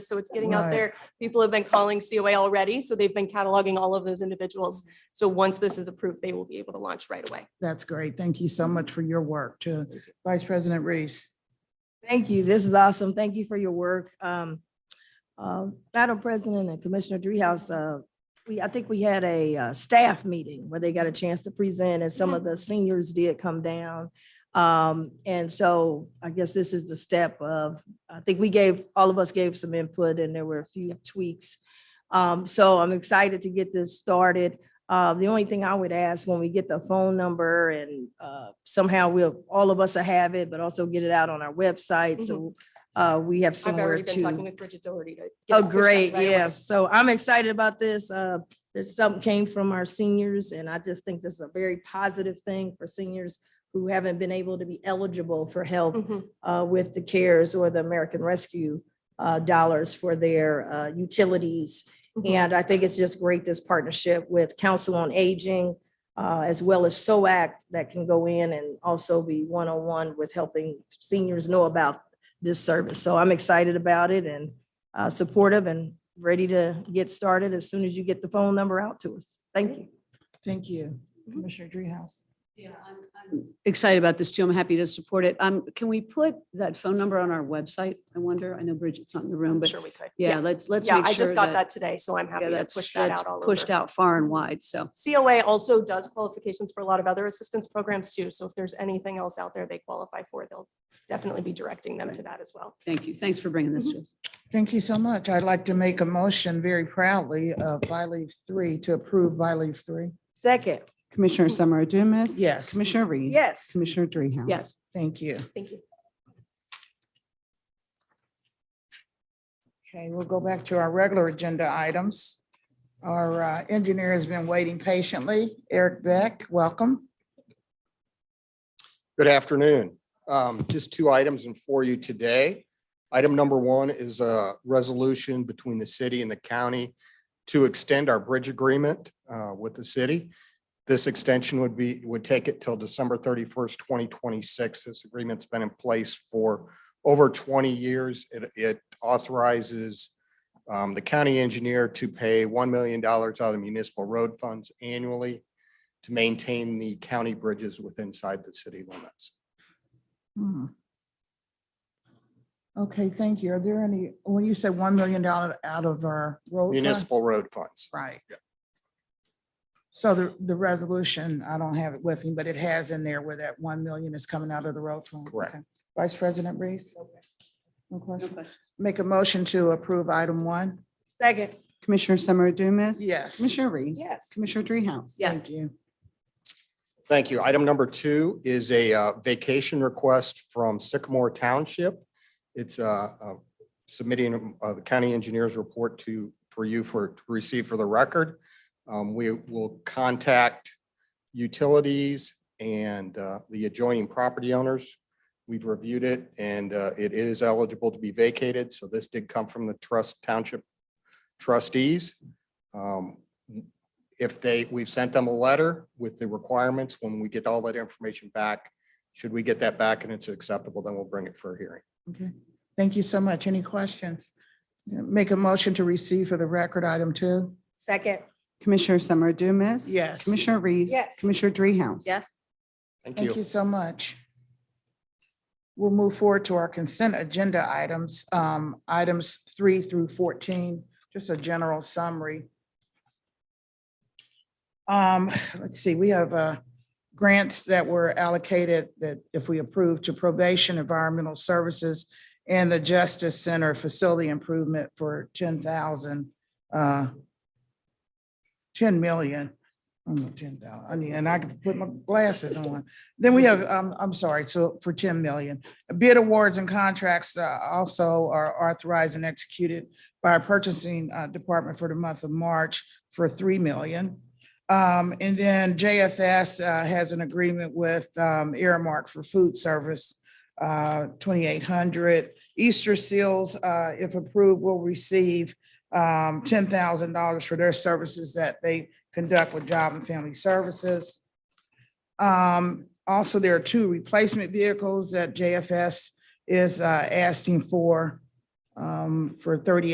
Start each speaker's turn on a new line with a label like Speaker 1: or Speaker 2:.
Speaker 1: So it's getting out
Speaker 2: Right.
Speaker 1: there. People have been calling COA already, so they've been cataloging all of those individuals. So once this is approved, they will be able to launch right away.
Speaker 2: That's great. Thank you so much for your work to Vice President Reese.
Speaker 3: Thank you. This is awesome. Thank you for your work. Um, uh, Madam President and Commissioner Dreehouse, uh, we, I think we had a, uh, staff meeting where they got a chance to present and some of the seniors did come down. Um, and so I guess this is the step of, I think we gave, all of us gave some input and there were a few tweaks. Um, so I'm excited to get this started. Uh, the only thing I would ask when we get the phone number and, uh, somehow we'll, all of us will have it, but also get it out on our website. So, uh, we have
Speaker 1: Mm-hmm. I've
Speaker 3: somewhere
Speaker 1: already been
Speaker 3: to.
Speaker 1: talking with Bridget Doherty to. get
Speaker 3: Oh,
Speaker 1: it pushed out
Speaker 3: great.
Speaker 1: right away.
Speaker 3: Yes. So I'm excited about this. Uh, this something came from our seniors and I just think this is a very positive thing for seniors who haven't been able to be eligible for help
Speaker 1: Mhm.
Speaker 3: uh, with the CARES or the American Rescue uh, dollars for their uh, utilities.
Speaker 1: Mhm.
Speaker 3: And I think it's just great, this partnership with Council on Aging, uh, as well as SOAC that can go in and also be one-on-one with helping seniors know about this service. So I'm excited about it and uh, supportive and ready to get started as soon as you get the phone number out to us. Thank you.
Speaker 2: Thank you,
Speaker 1: Mhm.
Speaker 2: Commissioner Dreehouse.
Speaker 4: Yeah, I'm, I'm excited about this too. I'm happy to support it. Um, can we put that phone number on our website? I wonder. I know Bridget's not in the room, but
Speaker 1: Sure we could.
Speaker 4: yeah, let's, let's
Speaker 1: Yeah,
Speaker 4: make
Speaker 1: I just
Speaker 4: sure
Speaker 1: got that today, so I'm happy
Speaker 4: Yeah,
Speaker 1: to
Speaker 4: that's,
Speaker 1: push that
Speaker 4: that's
Speaker 1: out all over.
Speaker 4: pushed out far and wide. So
Speaker 1: COA also does qualifications for a lot of other assistance programs too. So if there's anything else out there they qualify for, they'll definitely be directing them to that as well.
Speaker 4: thank you. Thanks for bringing
Speaker 1: Mm-hmm.
Speaker 4: this to us.
Speaker 2: Thank you so much. I'd like to make a motion very proudly of by leave three to approve by leave three.
Speaker 3: Second,
Speaker 5: Commissioner
Speaker 1: Mm-hmm.
Speaker 5: Summer Dumas.
Speaker 2: Yes.
Speaker 5: Commissioner Reese.
Speaker 3: yes.
Speaker 5: Commissioner Dreehouse.
Speaker 4: Yes.
Speaker 2: Thank you.
Speaker 1: Thank you.
Speaker 2: Okay, we'll go back to our regular agenda items. Our uh, engineer has been waiting patiently. Eric Beck, welcome.
Speaker 6: Good afternoon. Um, Just two items in for you today. Item number one is a resolution between the city and the county to extend our bridge agreement uh, with the city. This extension would be, would take it till December thirty-first, twenty twenty-six. This agreement's been in place for over twenty years. It- It authorizes um, the county engineer to pay one million dollars out of municipal road funds annually to maintain the county bridges within inside the city limits.
Speaker 2: Hmm. Okay, thank you. Are there any, when you say $1 million out of our road fund?
Speaker 6: Municipal road funds.
Speaker 2: Right.
Speaker 6: Yep.
Speaker 2: So the, the resolution, I don't have it with me, but it has in there where that one million is coming out of the road fund.
Speaker 6: Correct.
Speaker 2: Okay. Vice President Reese? No question? Make a motion to approve item one?
Speaker 3: Second,
Speaker 5: Commissioner Summer Dumas.
Speaker 2: Yes.
Speaker 5: Commissioner Reese.
Speaker 3: Yes.
Speaker 5: Commissioner Dreehouse.
Speaker 2: Thank you.
Speaker 6: Thank you. Item number two is a uh, vacation request from Sycamore Township. It's uh, uh, submitting uh, the county engineer's report to, for you for, to receive for the record. Um, We will contact utilities and uh, the adjoining property owners. We've reviewed it and uh, it is eligible to be vacated. So this did come from the trust township trustees. Um, if they, we've sent them a letter with the requirements, when we get all that information back, should we get that back and it's acceptable, then we'll bring it for a hearing.
Speaker 2: Okay. Thank you so much. Any questions? Make a motion to receive for the record item two?
Speaker 3: second,
Speaker 5: Commissioner Summer Dumas.
Speaker 2: Yes.
Speaker 5: Commissioner Reese.
Speaker 3: Yes.
Speaker 5: Commissioner Dreehouse.
Speaker 4: Yes.
Speaker 6: Thank
Speaker 2: Thank you
Speaker 6: you.
Speaker 2: so much. We'll move forward to our consent agenda items, um, items three through fourteen, just a general summary. Um, let's see, we have, uh, grants that were allocated that if we approve to probation, environmental services and the Justice Center Facility Improvement for ten thousand, uh, ten million, I don't know, ten thousand, I mean, and I could put my glasses on. Then we have, um, I'm sorry, so for ten million, bid awards and contracts uh, also are authorized and executed by our purchasing uh, department for the month of March for three million. Um, and then JFS uh, has an agreement with um, Earmark for food service, uh, twenty-eight hundred. Easter Seals, uh, if approved, will receive um, ten thousand dollars for their services that they conduct with Job and Family Services. Um, also, there are two replacement vehicles that JFS is uh, asking for um, for thirty